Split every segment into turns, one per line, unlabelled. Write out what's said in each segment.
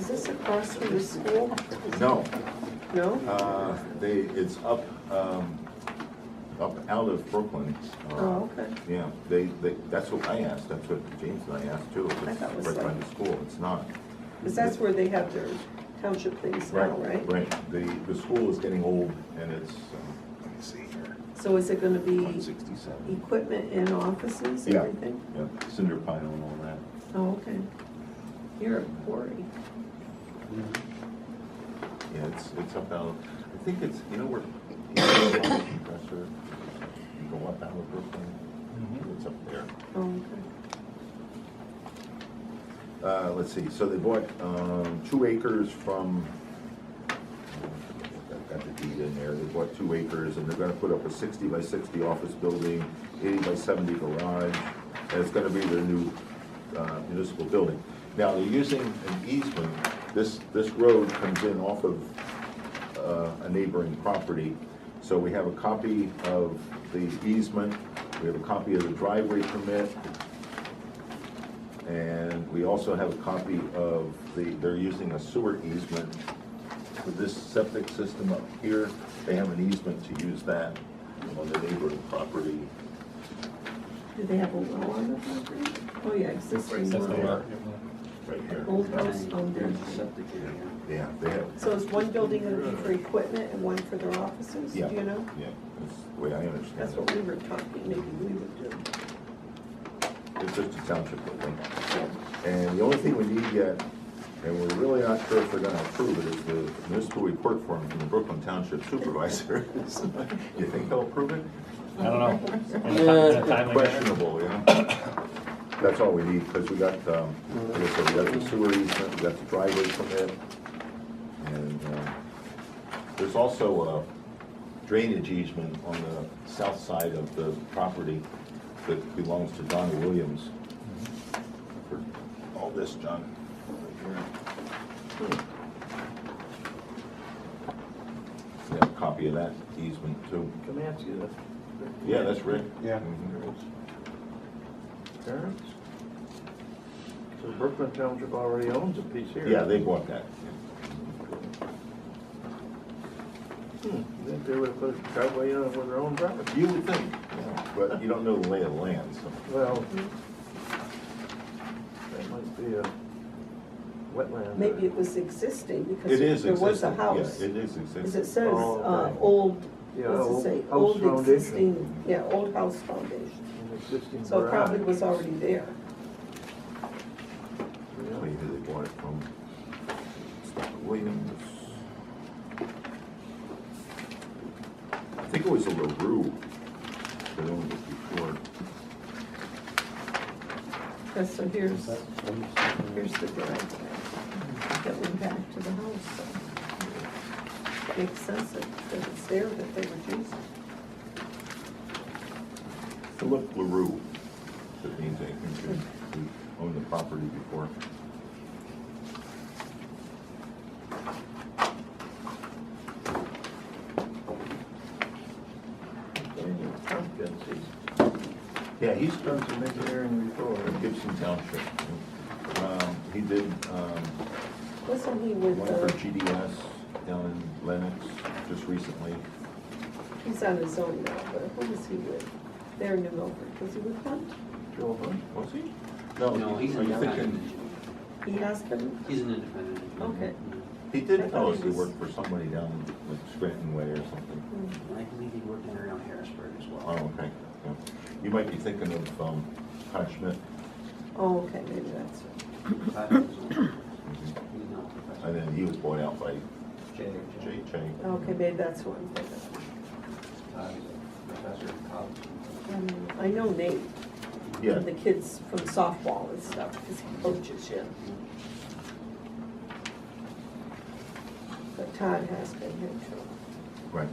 across from the school?
No,
No?
uh, they, it's up, um, up out of Brooklyn. uh,
Oh, okay.
Yeah, they, they, that's what I asked, that's what James and I asked too. if
I
It's
thought it was
Right by
like-
the school, it's not.
Because that's where they have their township things now, right?
Right, the, the school is getting old and it's, um, let me see here,
So is it gonna
one
be
sixty-seven.
equipment and offices,
Yeah.
everything?
Yeah, cinder pile and all that.
Oh, okay. You're a quarry.
Yeah, it's, it's up out, I think it's, you know where, you know, the compressor, you go up out of Brooklyn, it's up there.
Oh, okay.
Uh, let's see, so they bought, um, two acres from, I've got the deed in there, they bought two acres, and they're gonna put up a sixty by sixty office building, eighty by seventy garage, and it's gonna be their new, uh, municipal building. Now, they're using an easement, this, this road comes in off of, uh, a neighboring property, so we have a copy of the easement, we have a copy of the driveway permit, and we also have a copy of the, they're using a sewer easement for this septic system up here. They have an easement to use that on the neighboring property.
Do they have a well on the property? Oh, yeah, existing
That's the
well.
one.
Right here.
Old house, old
There's
building.
a septic area.
Yeah, they have,
So is one building gonna be for equipment and one for their offices, do
yeah,
you
yeah,
know?
that's the way I understand
That's what
it.
we were talking, maybe we would do.
It's just a township building.
Yeah.
And the only thing we need yet, and we're really not sure if they're gonna approve it, is the municipal report form from the Brooklyn Township Supervisor. You think they'll approve it?
I don't know. In a ti- in a timely manner.
Questionable, yeah. That's all we need, because we got, um, like I said, we got the sewer easement, we got the driveway permit. And, um, there's also a drainage easement on the south side of the property that belongs to Donna Williams. For All this, John. We have a copy of that easement too.
Come ask you that.
Yeah, that's Rick.
Yeah.
Mhm.
Terrence? So Brooklyn Township already owns a piece here.
Yeah, they bought that.
Hmm, Then they would have put a driveway on with their own property.
You would think, but you don't know the lay of the land, so.
Well,
Hmm.
that might be a wetland.
Maybe it was existing
It
because
is
there was a
existing, yeah,
house.
It
Because
is
it
existing.
says,
Oh,
uh,
okay.
old,
Yeah,
what's it say?
old
Old
house foundation.
existing, yeah, old house foundation.
An existing
So it probably
garage.
was already there.
Tell you who they bought it from. It's Dr. Williams. I think it was a LaRue that owned it before.
Yeah, So here's,
That's-
here's the driveway that went back to the house. so Makes sense that that it's there that they were using.
Philip LaRue. That means I think he he owned the property before.
Daniel Tompkins, he's
Yeah, he's
done some engineering before.
Gibson Township. Um, He did um,
Wasn't he with,
One for
uh,
GDS down in Lenox just recently.
he's on his own now, but who was he with? There in New Milford, was he with Hunt?
Joe Hunt.
Was he?
No, he's
are
an
you
independent
thinking,
engineer.
He asked him,
He's an independent engineer.
Okay.
he
I
did
thought
tell
he
us he
was-
worked for somebody down like Scranton Way or something.
And I believe he worked in around Harrisburg as
Oh,
well.
okay. Yeah. You might be thinking of, um, Todd Schmidt.
oh, okay, maybe that's it.
Todd was on-
Mhm.
he's not a professor.
And then he was bought out by
Jay- Jay-
Jay Chang.
Okay, maybe that's who I'm thinking of.
Todd is a professor of college.
Um, I know Nate,
Yeah.
the kids from softball and stuff, because he coaches, yeah. But Todd has been here too.
Right.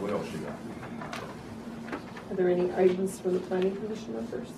What else you got?
Are there any items for the planning commission members?